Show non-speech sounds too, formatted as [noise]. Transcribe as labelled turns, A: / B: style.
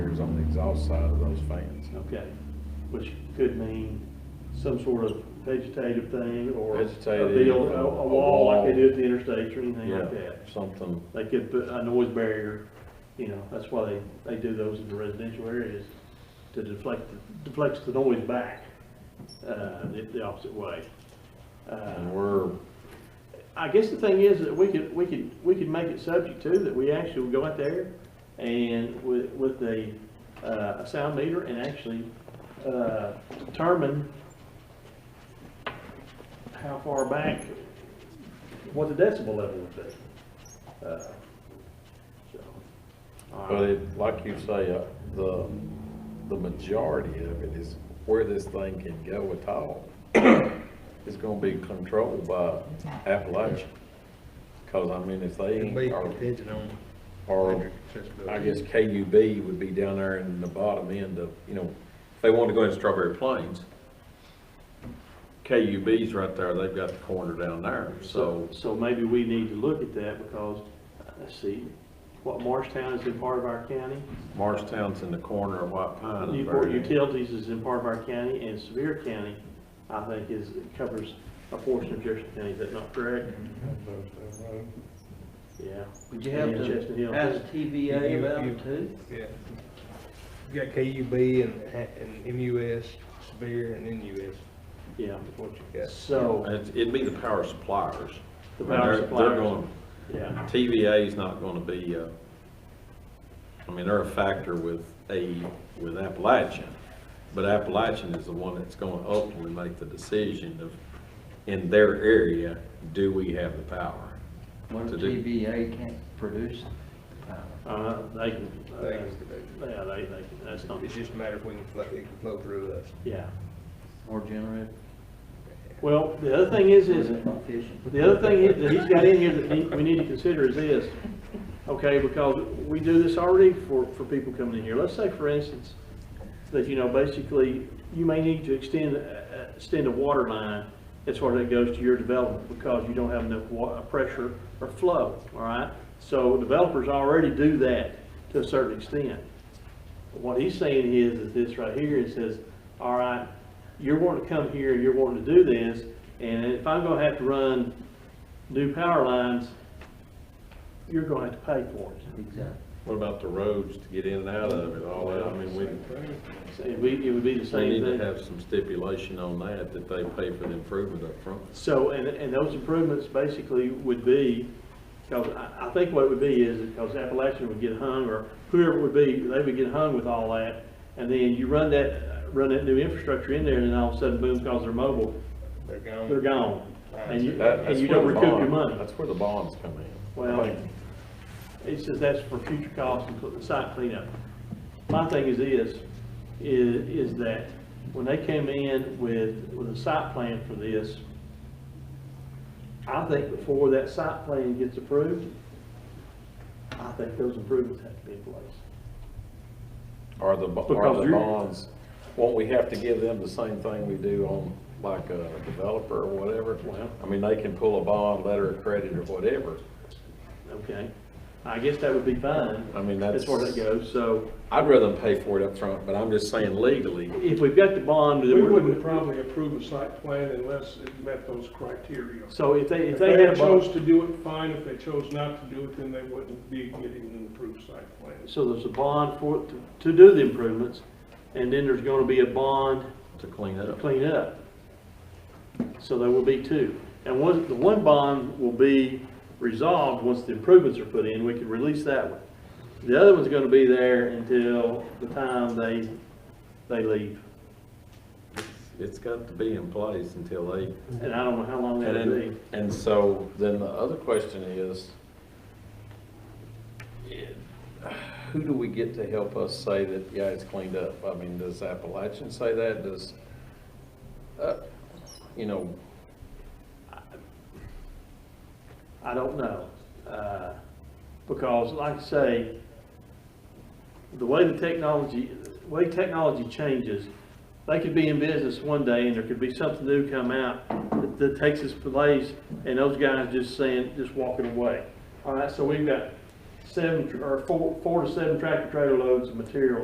A: on the exhaust side of those fans.
B: Okay, which could mean some sort of vegetative thing or a
A: Vegetative,
B: deal, a,
A: a
B: a wall like
A: wall.
B: they do at the interstates or anything
A: Yeah,
B: like that.
A: something,
B: They could put a noise barrier, you know, that's why they, they do those in the residential areas to deflect, deflects the noise back, uh, the, the opposite way. Uh,
A: and we're,
B: I guess the thing is that we could, we could, we could make it subject to that we actually would go out there and with, with a, uh, a sound meter and actually, uh, determine how far back, what the decibel level would be. Uh, so, all
A: but
B: right.
A: it, like you say, uh, the, the majority of it is where this thing can go at all. [coughs] It's gonna be controlled by Appalachia. Cause I mean, if they
C: It'd be
A: ain't, or,
C: contingent on.
B: Oh.
A: or I guess KUB would be down there in the bottom end of, you know, if they wanted to go in Strawberry Plains, KUB's right there, they've got the corner down there, so,
B: uh, So maybe we need to look at that because, uh, let's see, what, Marshtown is in part of our county?
A: Marshtown's in the corner of White Pine. and
B: Newport
A: Vernon.
B: Utilities is in part of our county, and Sevier County, I think, is, covers a portion of Jefferson County, is that not correct? Yeah.
D: Would you have
B: And Chestnut Hill.
D: to ask TVA
C: You-
D: about
C: you-
D: it too?
C: Yeah. You got KUB and, and MUS, Spear and NUS,
B: Yeah,
C: what you got.
B: so,
A: It's- It'd be the power suppliers.
B: The power
A: They're-
B: suppliers.
A: They're going,
B: yeah,
A: TVA's not gonna be, uh, I mean, they're a factor with a, with Appalachian. But Appalachian is the one that's gonna ultimately make the decision of, in their area, do we have the power?
D: When
A: To do.
D: TVA can't produce power.
B: uh, they can, uh,
C: They can do
B: yeah, they, they can, that's not,
C: It's just a matter of we can flow, it can flow through us.
B: yeah.
D: or generate.
B: Well, the other thing is, is,
D: efficient.
B: The other thing is- that he's got in here that he- we need to consider is this, okay, because we do this already for, for people coming in here. Let's say, for instance, that, you know, basically, you may need to extend, uh, uh, extend a water line as far as it goes to your development because you don't have enough wa, uh, pressure or flow, all right? So developers already do that to a certain extent. What he's saying is, is this right here, it says, all right, you're wanting to come here, you're wanting to do this, and if I'm gonna have to run new power lines, you're gonna have to pay for it.
D: Exactly.
A: What about the roads to get in and out of it, all that? I mean, we,
B: So It would, it would be the
A: we
B: same
A: need to
B: thing.
A: have some stipulation on that, that they pay for the improvement up front.
B: So, and, and those improvements basically would be, because I, I think what it would be is, because Appalachian would get hung, or whoever it would be, they would get hung with all that, and then you run that, run that new infrastructure in there, and then all of a sudden, boom, because they're mobile,
C: They're gone.
B: they're gone. And you,
A: That-
B: and
A: that's
B: you
A: where
B: don't
A: the
B: recoup your
A: bond-
B: money.
A: That's where the bonds come in.
B: Well, it says that's for future costs and cl- site cleanup. My thing is this, is, is that when they came in with, with a site plan for this, I think before that site plan gets approved, I think those improvements have to be in place.
A: Are the, bo-
B: Because
A: are the
B: you're-
A: bonds, won't we have to give them the same thing we do on like uh, a developer or whatever?
B: Well-
A: I mean, they can pull a bond, letter of credit or whatever.
B: Okay? I guess that would be fine.
A: I mean,
B: As far as that goes, so
A: I'd rather them pay for it up front, but I'm just saying legally,
B: if we've got the bond. that
E: We
B: we're-
E: wouldn't probably approve a site plan unless it met those criteria.
B: So if they,
E: If
B: if
E: they
B: they had a bond.
E: chose to do it, fine. If they chose not to do it, then they wouldn't be getting an approved site plan.
B: So there's a bond for, to- to do the improvements, and then there's gonna be a bond
A: to clean it
B: to
A: up.
B: clean up. So there will be two. And one, the one bond will be resolved once the improvements are put in, we can release that one. The other one's gonna be there until the time they, they leave,
A: It's got to be in place until they
B: and I don't know how long
A: And
B: that'll be.
A: then, and so then the other question is, who do we get to help us say that, yeah, it's cleaned up? I mean, does Appalachian say that? Does, uh, you know,
B: I don't know. Uh, Because like I say, the way the technology, the way technology changes, they could be in business one day and there could be something new come out that- that takes its place and those guys just saying, just walking away. All right, so we've got seven, tr- or four, four to seven tractor trailer loads of material